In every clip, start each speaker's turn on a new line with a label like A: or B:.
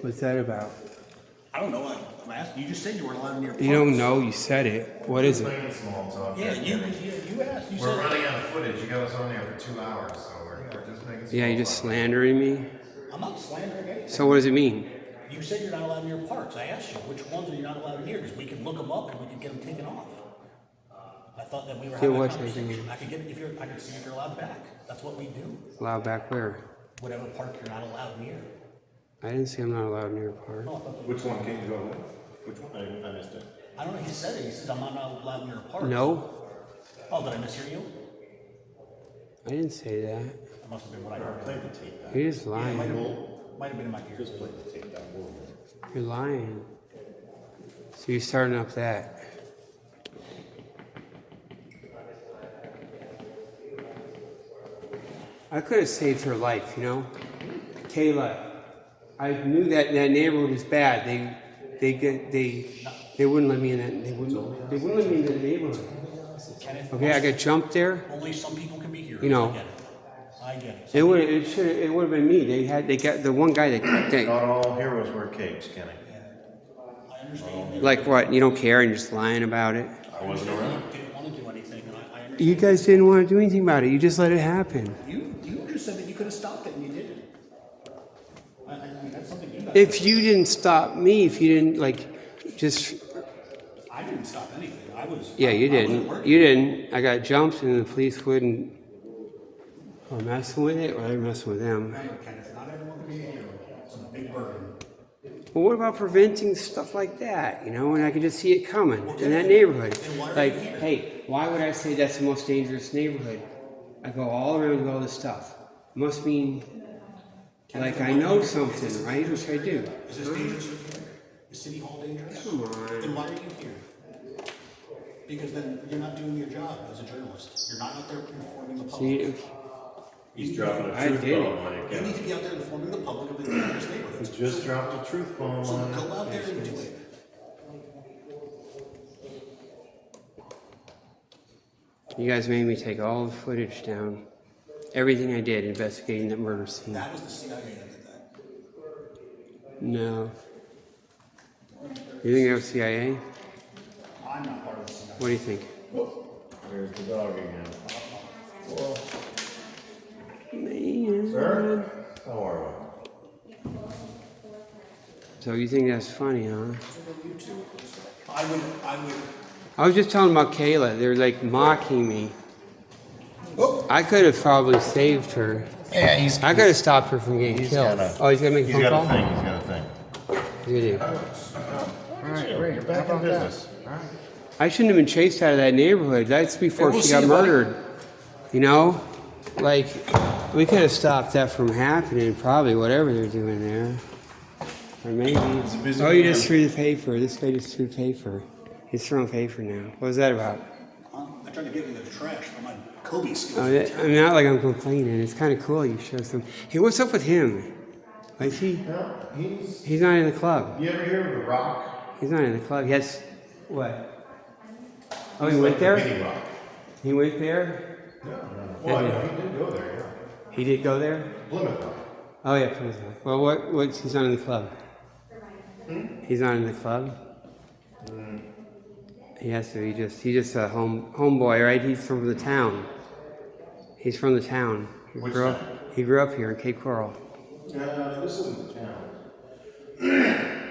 A: What's that about?
B: I don't know. I- I'm asking. You just said you weren't allowed near.
A: You don't know. You said it. What is it?
C: Playing small talk.
B: Yeah, you, yeah, you asked. You
C: We're
B: said
C: running out of footage. You got us on there for two hours, so we're, we're just making.
A: Yeah,
C: small
A: you're just
C: talk.
A: slandering me.
B: I'm not slandering anything.
A: So what does it mean?
B: You said you're not allowed near parks. I asked you which ones are you not allowed near because we can look them up and we can get them taken off. I thought that we were having a
A: what
B: conversation. I could get if you're. I could see if you're allowed back. That's what we do.
A: Allowed back where?
B: Whatever park you're not allowed near.
A: I didn't say I'm not allowed near a park.
B: No, I thought that-
D: Which one can you go with? Which one? I, I missed it.
B: I don't know. He said it. He says I'm not allowed near parks.
A: No,
B: Oh, did I mishear you?
A: I didn't say that.
B: That must have been what I heard.
D: Play the tape back.
A: You're just
B: Might
A: lying.
B: have, might have been in my ears.
D: Just play the tape back. We'll-
A: You're lying. So you're starting up that. I could have saved her life, you know? Kayla, I knew that that neighborhood was bad. They, they get, they, they wouldn't let me in that. They wouldn't, they wouldn't let me in that neighborhood.
B: Kenneth,
A: Okay, I got jumped there.
B: only some people can be here.
A: You know.
B: I get it. I get it.
A: It would, it should, it would have been me. They had, they got the one guy that, that
D: Not all heroes wear capes, Kenny.
B: I understand. that
A: like what? You don't care and you're just lying about it.
D: I wasn't around.
B: you Didn't want to do anything, and I, I understand.
A: You guys didn't want to do anything about it. You just let it happen.
B: You, you just said that you could have stopped it, and you didn't. I, I mean, that's something you guys.
A: If you didn't stop me, if you didn't like, just
B: I didn't stop anything. I was.
A: yeah,
B: I-
A: you
B: I wasn't
A: didn't.
B: working.
A: You didn't. I got jumped, and the police wouldn't. Or messing with it, or I messing with them.
B: Remember, Kenneth, not everyone can be here. It's a big burden.
A: Well, what about preventing stuff like that? You know, and I could just see it coming in that neighborhood. Like, hey, why would I say that's the most dangerous neighborhood? I go all around with all this stuff. Must mean, like, I know something, right? Which I do.
B: Is this dangerous? Is City Hall dangerous?
A: Come on.
B: Then why are you here? Because then you're not doing your job as a journalist. You're not out there informing the
A: Do
B: public.
A: you-
D: He's dropping
A: I
D: a truth
A: did it.
D: bomb on you,
B: You
D: Kenny.
B: need to be out there informing the public of the dangerous neighborhoods.
D: Just dropped a truth bomb
B: So
D: on
B: go
D: you.
B: out there and do it.
A: You guys made me take all the footage down. Everything I did investigating that murder scene.
B: That was the CIA that did that.
A: No. You think that was CIA?
B: I'm not part of the CIA.
A: What do you think?
D: There's the dog again.
A: Man.
D: Sir? How are you?
A: So you think that's funny, huh?
B: I would, I would,
A: I was just telling about Kayla. They were like mocking me. I could have probably saved her.
D: Oh. Yeah, he's.
A: I could have stopped her from getting killed.
D: got a-
A: oh, he's gonna make a
D: He's
A: phone
D: got
A: call.
D: a thing. He's got a thing.
A: Good idea.
C: All right, great.
D: You're back
C: How
D: in
C: about that?
D: business.
C: All right.
A: I shouldn't have been chased out of that neighborhood. That's before she got murdered. You know? Like, we could have stopped that from happening, probably, whatever they're doing there. Or maybe.
D: busy
A: Oh, you
D: man.
A: just threw the paper. This guy just threw paper. He's throwing paper now. What was that about?
B: um, I tried to give you the trash for my Kobe
A: Oh,
B: skills.
A: that, I'm not like I'm complaining. It's kind of cool you show some. Hey, what's up with him? Like, he,
C: No, he's.
A: he's not in the club.
C: You ever hear of the Rock?
A: He's not in the club. Yes. What? Oh, he
C: He's
A: went
C: like the
A: there?
C: Mini Rock.
A: He went there?
C: No, no. Well, I know he did go there.
A: He did go there?
C: Yeah. Plymouth Rock.
A: Oh yeah, Plymouth Rock. Well, what? What's he's not in the club? He's not in the club. He has to. He just. He just a home homeboy, right? He's from the town. He's from the town. He
C: Which
A: grew up. He grew up here in Cape Coral.
C: Uh, this isn't the town.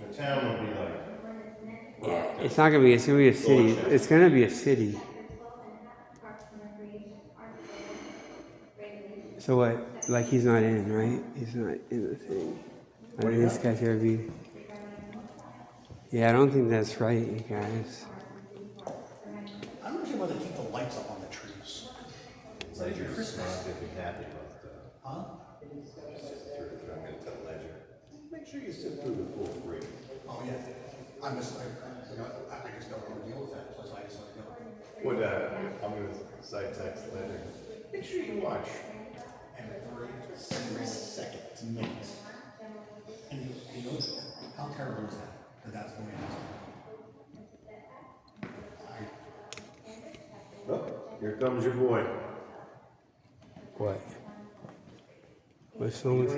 C: the town would be like.
A: It's not gonna be. It's gonna be a city. It's gonna be a city. So what? Like he's not in, right? He's not in the thing. I think this guy's gotta be. Yeah, I don't think that's right, you guys.
B: I don't understand why they keep the lights up on the trees.
D: Ledger's not gonna be happy about that.
B: Huh?
D: Through- through- I'm gonna tell Ledger. Make sure you sit through the full three.
B: Oh, yeah. I'm just, I, you know, I I just don't want to deal with that, plus I just like, no.
D: What, uh, I'm gonna side text Ledger. Make sure you watch.
B: Every single second to minute. And you- you know, how terrible is that, that that's the way it is? I,
D: Oh, here comes your boy.
A: What? What's wrong with